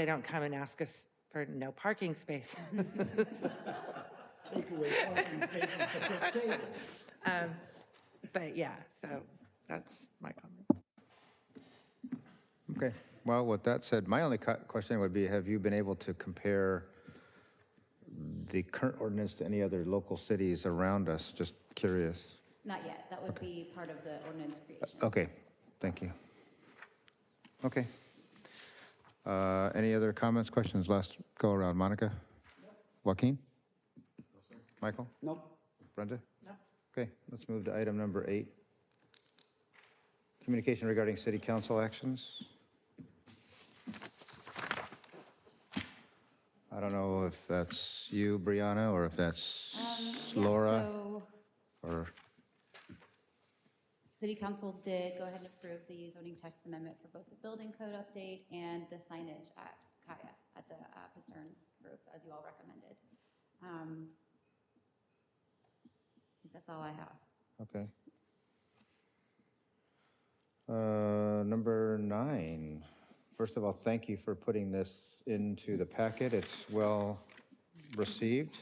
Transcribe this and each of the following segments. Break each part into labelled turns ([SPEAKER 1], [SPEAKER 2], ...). [SPEAKER 1] they don't come and ask us for no parking space.
[SPEAKER 2] take away parking spaces at the table.
[SPEAKER 1] Um, But yeah, so that's my comment.
[SPEAKER 3] Okay, well, with that said, my only cu- question would be, have you been able to compare the current ordinance to any other local cities around us? Just curious.
[SPEAKER 4] Not yet. That would be part of the ordinance creation.
[SPEAKER 3] Okay, thank you. Okay. Uh, Any other comments, questions, last go around? Monica? Joaquin? Michael?
[SPEAKER 2] Nope.
[SPEAKER 3] Brenda? No. Okay, let's move to item number eight. Communication regarding city council actions. I don't know if that's you, Brianna, or if that's
[SPEAKER 4] Um, yeah,
[SPEAKER 3] Laura,
[SPEAKER 4] so
[SPEAKER 3] or,
[SPEAKER 4] City council did go ahead and approve the zoning text amendment for both the building code update and the signage at Kaya, at the uh, Pastern Group, as you all recommended. Um, I think That's all I have.
[SPEAKER 3] okay. Uh, Number nine. First of all, thank you for putting this into the packet. It's well received.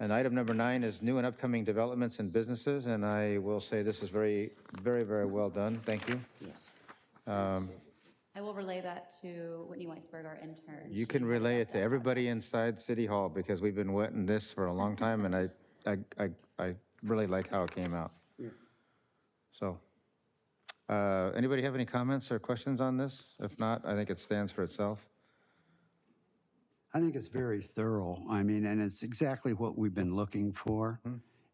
[SPEAKER 3] And item number nine is new and upcoming developments and businesses, and I will say this is very, very, very well done. Thank you. Um,
[SPEAKER 4] I will relay that to Whitney Weisberg, our intern.
[SPEAKER 3] You
[SPEAKER 4] She
[SPEAKER 3] can
[SPEAKER 4] headed
[SPEAKER 3] relay
[SPEAKER 4] up
[SPEAKER 3] it to
[SPEAKER 4] that
[SPEAKER 3] everybody inside City Hall because we've been wetting this for a long time, and I, I, I, I really like how it came out. So, uh, anybody have any comments or questions on this? If not, I think it stands for itself.
[SPEAKER 5] I think it's very thorough. I mean, and it's exactly what we've been looking for.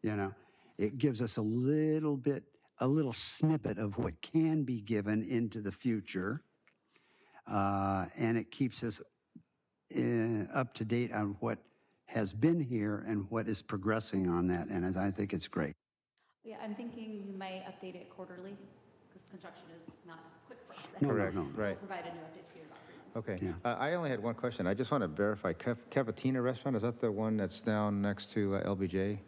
[SPEAKER 5] You know, it gives us a little bit, a little snippet of what can be given into the future. Uh, and it keeps us uh, up to date on what has been here and what is progressing on that. And I think it's great.
[SPEAKER 4] Yeah, I'm thinking you may update it quarterly, because construction is not a quick process.
[SPEAKER 5] No, no,
[SPEAKER 3] Correct,
[SPEAKER 5] no.
[SPEAKER 4] So we'll
[SPEAKER 3] right.
[SPEAKER 4] provide a new update to you in about three months.
[SPEAKER 3] Okay.
[SPEAKER 5] Yeah.
[SPEAKER 3] Uh, I only had one question. I just want to verify. Cav- Cavatina Restaurant, is that the one that's down next to uh, LBJ?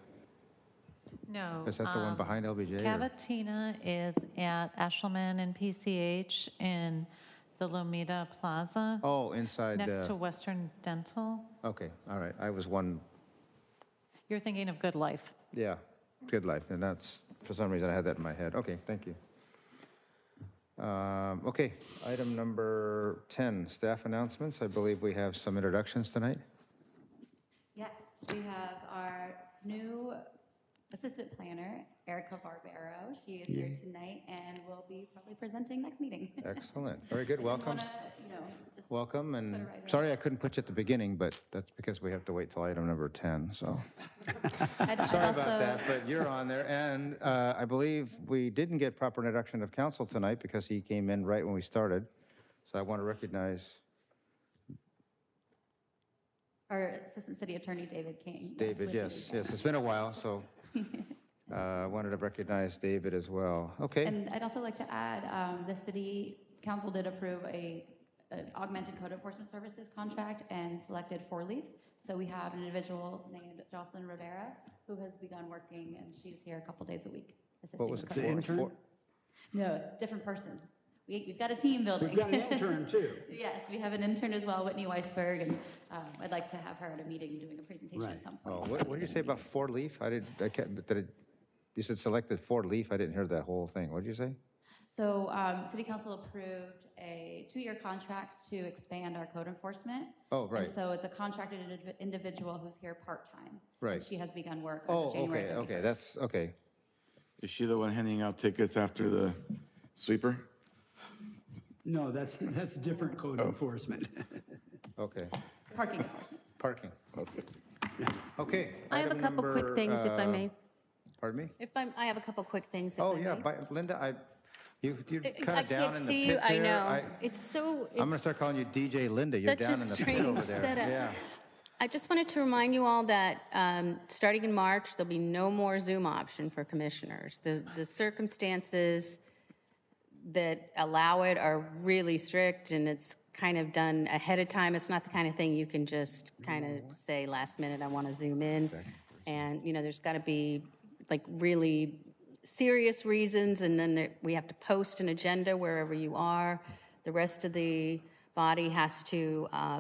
[SPEAKER 6] No.
[SPEAKER 3] Is that the one
[SPEAKER 6] um,
[SPEAKER 3] behind LBJ? or-
[SPEAKER 6] Cavatina is at Eshelman and PCH in the Lomita Plaza,
[SPEAKER 3] Oh, inside
[SPEAKER 6] next to
[SPEAKER 3] the,
[SPEAKER 6] Western Dental.
[SPEAKER 3] okay, all right. I was one
[SPEAKER 6] You're thinking of Good Life.
[SPEAKER 3] Yeah, good life. And that's, for some reason, I had that in my head. Okay, thank you. Um, Okay, item number 10, staff announcements. I believe we have some introductions tonight.
[SPEAKER 4] Yes, we have our new assistant planner, Erica Barbero. She is here tonight and will be probably presenting next meeting.
[SPEAKER 3] Excellent. Very good, welcome.
[SPEAKER 4] I just wanna, You know, just.
[SPEAKER 3] Welcome,
[SPEAKER 4] put it
[SPEAKER 3] and
[SPEAKER 4] right away.
[SPEAKER 3] sorry I couldn't put you at the beginning, but that's because we have to wait till item number 10, so.
[SPEAKER 4] I'd- I'd
[SPEAKER 3] Sorry about
[SPEAKER 4] also-
[SPEAKER 3] that, but you're on there. And uh, I believe we didn't get proper introduction of council tonight because he came in right when we started. So I want to recognize
[SPEAKER 4] Our Assistant City Attorney, David King. Yes,
[SPEAKER 3] David,
[SPEAKER 4] with me
[SPEAKER 3] yes,
[SPEAKER 4] today.
[SPEAKER 3] yes, it's been a while, so uh, I wanted to recognize David as well. Okay,
[SPEAKER 4] And I'd also like to add, um, the city council did approve a, an augmented code enforcement services contract and selected Four Leaf. So we have an individual named Jocelyn Rivera who has begun working and she's here a couple days a week.
[SPEAKER 3] what
[SPEAKER 4] assisting
[SPEAKER 3] was
[SPEAKER 4] with
[SPEAKER 3] it?
[SPEAKER 4] code
[SPEAKER 3] for?
[SPEAKER 5] intern?
[SPEAKER 3] For-
[SPEAKER 4] No, different person. We, we've got a team building.
[SPEAKER 2] We've got an intern too.
[SPEAKER 4] Yes, we have an intern as well, Whitney Weisberg, and um, I'd like to have her at a meeting doing a presentation at
[SPEAKER 5] Right.
[SPEAKER 4] some point.
[SPEAKER 3] Oh, what, what did you say about four leaf? I didn't, I can't, did it, you said selected four leaf, I didn't hear that whole thing. What did you say?
[SPEAKER 4] So, um, City Council approved a two-year contract to expand our code enforcement.
[SPEAKER 3] Oh, right.
[SPEAKER 4] And so it's a contracted indiv- individual who's here part-time.
[SPEAKER 3] Right.
[SPEAKER 4] And she has begun work as
[SPEAKER 3] Oh,
[SPEAKER 4] of January
[SPEAKER 3] okay,
[SPEAKER 4] 31st.
[SPEAKER 3] okay, that's, okay.
[SPEAKER 7] Is she the one handing out tickets after the sweeper?
[SPEAKER 2] No, that's, that's different code enforcement.
[SPEAKER 3] Okay,
[SPEAKER 4] Parking enforcement.
[SPEAKER 3] parking. Okay.
[SPEAKER 8] I have a
[SPEAKER 3] item
[SPEAKER 8] couple quick
[SPEAKER 3] number,
[SPEAKER 8] things, if I
[SPEAKER 3] uh,
[SPEAKER 8] may.
[SPEAKER 3] Pardon me?
[SPEAKER 8] If I'm, I have a couple quick things. if
[SPEAKER 3] Oh,
[SPEAKER 8] I
[SPEAKER 3] yeah,
[SPEAKER 8] may.
[SPEAKER 3] but Linda, I, you, you're
[SPEAKER 8] I-
[SPEAKER 3] kind
[SPEAKER 8] I
[SPEAKER 3] of down
[SPEAKER 8] can't
[SPEAKER 3] in the
[SPEAKER 8] see
[SPEAKER 3] pit
[SPEAKER 8] you. I
[SPEAKER 3] there.
[SPEAKER 8] know. It's so.
[SPEAKER 3] I'm gonna start calling you DJ Linda, you're
[SPEAKER 8] such a
[SPEAKER 3] down in the pit over
[SPEAKER 8] strange
[SPEAKER 3] there.
[SPEAKER 8] setup.
[SPEAKER 3] Yeah.
[SPEAKER 8] I just wanted to remind you all that um, starting in March, there'll be no more Zoom option for commissioners. The, the circumstances that allow it are really strict, and it's kind of done ahead of time. It's not the kind of thing you can just kind of say last minute, I want to Zoom in. And, you know, there's got to be like really serious reasons, and then there- we have to post an agenda wherever you are. The rest of the body has to uh,